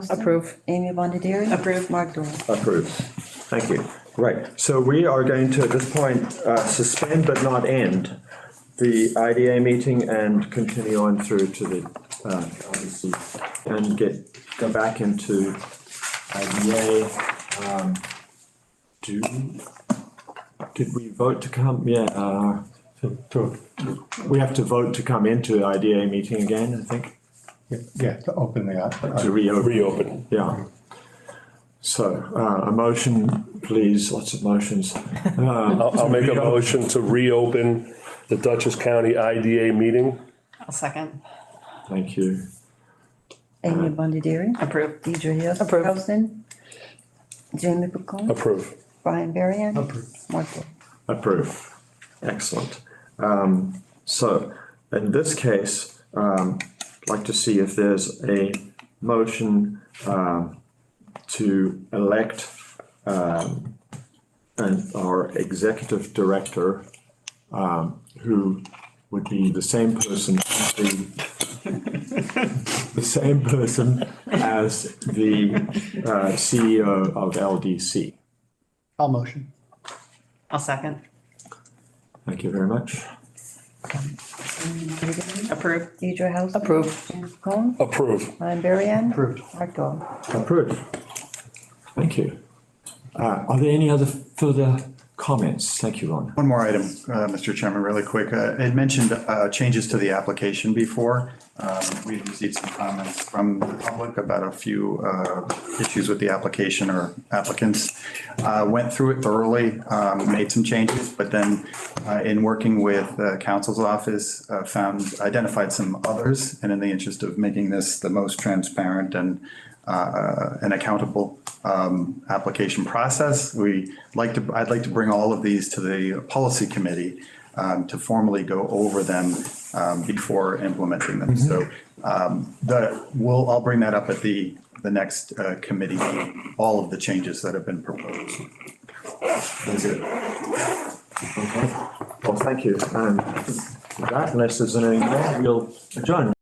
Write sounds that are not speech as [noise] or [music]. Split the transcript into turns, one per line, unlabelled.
Approve.
Amy Bondieri.
Approve.
Mark Dorf.
Approved. Thank you. Right, so we are going to, at this point, uh, suspend but not end the IDA meeting and continue on through to the, uh, obviously, and get, go back into IDA. Um, Do, did we vote to come, yeah, uh,
to, to,
we have to vote to come into IDA meeting again, I think,
yeah, to open the,
to
uh,
reopen.
reopen.
Yeah. So, uh, a motion, please, lots of motions. Uh,
I'll, I'll make a motion to reopen the Dutchess County IDA meeting.
I'll second.
Thank you.
Amy Bondieri.
Approve.
Deidre Hill.
Approve.
Jamie Pacone.
Approve.
Brian Varian. Mark Dorf.
Approve. Excellent. Um, so in this case, um, I'd like to see if there's a motion, um, to elect, um, an, our executive director, um, who would be the same person, [laughs] as the, the same person as the, uh, CEO of LDC.
I'll motion.
I'll second.
Thank you very much.
Approve.
Deidre House. Approve. Jamie Pacone.
Approve.
Brian Varian.
Approved.
Mark Dorf.
Approved. Thank you. Uh, are there any other further comments? Thank you, Ron.
One more item, uh, Mr. Chairman, really quick. Uh, I had mentioned uh, changes to the application before. Um, We received some comments from the public about a few uh, issues with the application or applicants. Uh, Went through it thoroughly, um, made some changes, but then uh, in working with uh, counsel's office, uh, found, identified some others. And in the interest of making this the most transparent and uh, an accountable um, application process. We like to, I'd like to bring all of these to the policy committee um, to formally go over them um, before implementing them. So um, the, we'll, I'll bring that up at the, the next uh, committee, meeting, all of the changes that have been proposed.
That's it. Okay. Well, thank you. Um, with that, unless there's anything more, we'll adjourn.